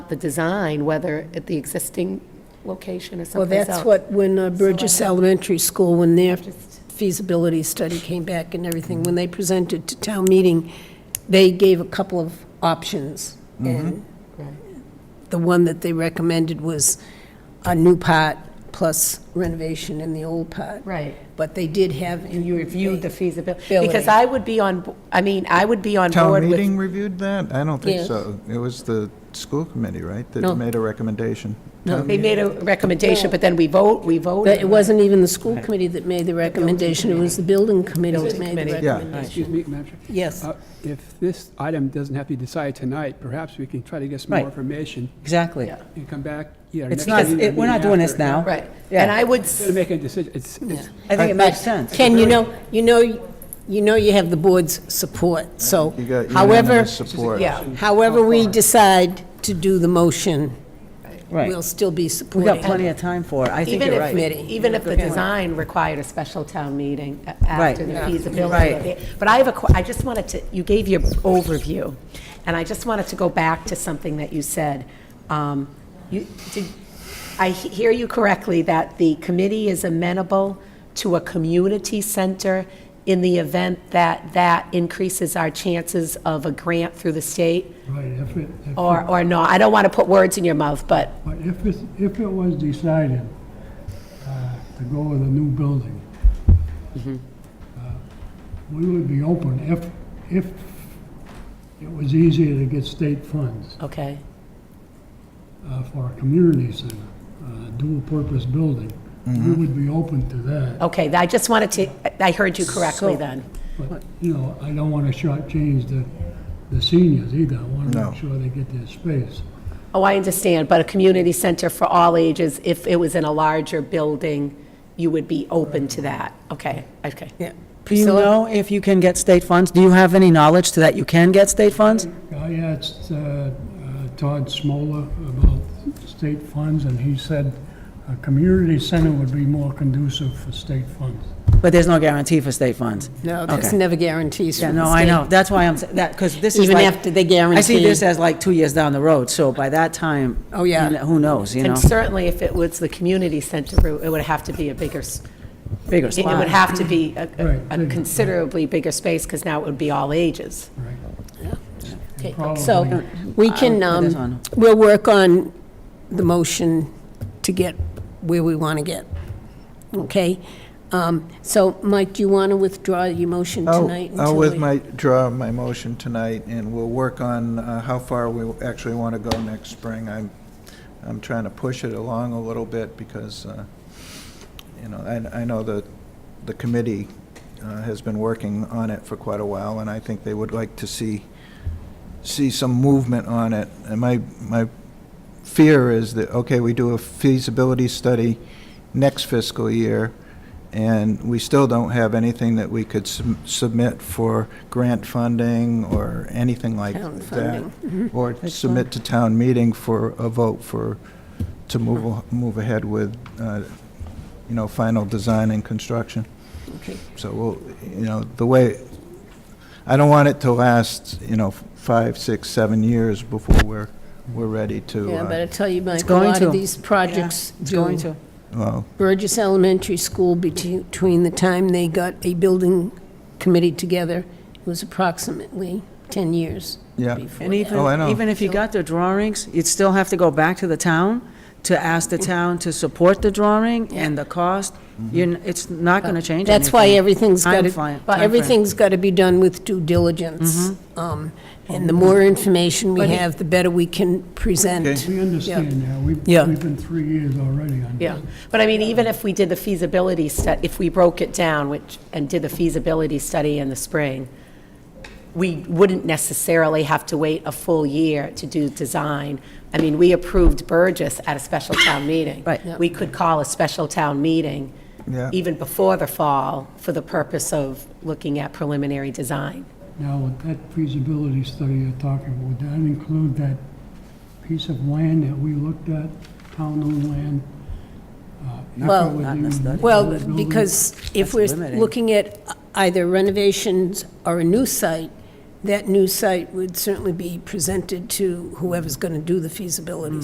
the design, whether at the existing location or Well, someplace else. that's what, when uh, Burgess Elementary School, when their feasibility study came back and everything, when they presented to town meeting, they gave a couple of options. And Right. the one that they recommended was a new part plus renovation in the old part. Right. But they did have, and you Reviewed the feasibility, Ability. because I would be on, bo- I mean, I would be on board Town with. meeting reviewed that? I don't think Yes. so. It was the school committee, right, No. that made a recommendation? They made a recommendation, but then we vote, we But it voted. wasn't even the school committee that made the recommendation, it was the building committee that made the committee. recommendation. Yeah. Excuse me, Madam Chair. Yes. Uh, If this item doesn't have to be decided tonight, perhaps we can try to get some Right. more information Exactly. Yeah. and come back, yeah. It's not, it- we're not doing this now. Right. Yeah. And I would, s- Instead of making a decision, it's, it's, I think it makes sense. Ken, you know, you know, you know you have the board's support, so You got however, unanimous support. yeah, however we decide to do the motion, Right. we'll still be We've got supporting. plenty of time for it. I think even you're if, right. even if the design required a special town meeting a- Right. after the Yeah. feasibility. Right. of it. But I have a, que- I just wanted to, you gave your overview, and I just wanted to go back to something that you said. Um, You, did, I he- hear you correctly that the committee is amenable to a community center in the event that that increases our chances of a grant through the state? Right, if it, if- Or, or no, I don't want to put words in your mouth, but but if it, if it was decided uh, to go with a new building, uh, we would be open if, if it was easier to get state funds Okay, uh, for a community center, uh, dual-purpose building. We would be open to that, okay, I just wanted to, I heard you correctly So- then. but, you know, I don't want to shortchange the, the seniors either. I want to No. make sure they get their space. Oh, I understand, but a community center for all ages, if it was in a larger building, you would be open to that? Okay, okay. Yeah. Do you Priscilla? know if you can get state funds? Do you have any knowledge to that you can get state funds? I asked uh, uh, Todd Smola about state funds, and he said a community center would be more conducive for state funds. But there's no guarantee for state funds. No, there's Okay. never guarantees Yeah, from the no, I state. know. That's why I'm, sa- that, because this is Even like- after they I see this guarantee. as like two years down the road, so by that time. Oh, yeah. you kn- Who knows, you know? And certainly, if it was the community center, it would have to be a bigger, s- Bigger it would spot. have to be a- a Right, a bigger. considerably bigger space, because now it would be all ages. Right. Okay, Probably. So we can, I'll put this um, on. we'll work on the motion to get where we want to get, okay? Um, So, Mike, do you want to withdraw your motion I'll- tonight? I'll until with we- my, draw my motion tonight, and we'll work on uh, how far we actually want to go next spring. I'm, I'm trying to push it along a little bit because, uh, you know, I, I know that the committee uh, has been working on it for quite a while, and I think they would like to see, see some movement on it. And my, my fear is that, okay, we do a feasibility study next fiscal year, and we still don't have anything that we could sub- submit for grant funding or anything like Town that. Or submit to town meeting for a vote for, to move, a- move ahead with, uh, you know, final design and construction. Okay. So, we'll you know, the way, I don't want it to last, you know, five, six, seven years before we're, we're ready to. Yeah, uh, but I tell you, Mike, a going lot of to. these projects It's do. going to. Well, Burgess Elementary School, bete- between the time they got a building committee together, it was approximately 10 years Yeah. before And that. Oh, I even, know. even if you got the drawings, you'd still have to go back to the town to ask the town to support the drawing and the cost. You're, n- it's not gonna change anything. That's why everything's got Time fly- to, time frame. Mm-hmm. everything's got to be done with due diligence. Um, And the more information we have, the better we can present. We understand that. We've, Yeah. we've been three years already on Yeah, this. but I mean, even if we did the feasibility stu, if we broke it down, which, and did the feasibility study in the spring, we wouldn't necessarily have to wait a full year to do design. I mean, we approved Burgess at a special town meeting. Right. We could call a special town meeting Yeah. even before the fall for the purpose of looking at preliminary design. Now, with that feasibility study you're talking about, would that include that piece of land that we looked at, town-owned land? uh, if it Well- would Not be in the study. Well, building? because if we're limiting. looking at either renovations or a new site, that new site would certainly be presented to whoever's going to do the feasibility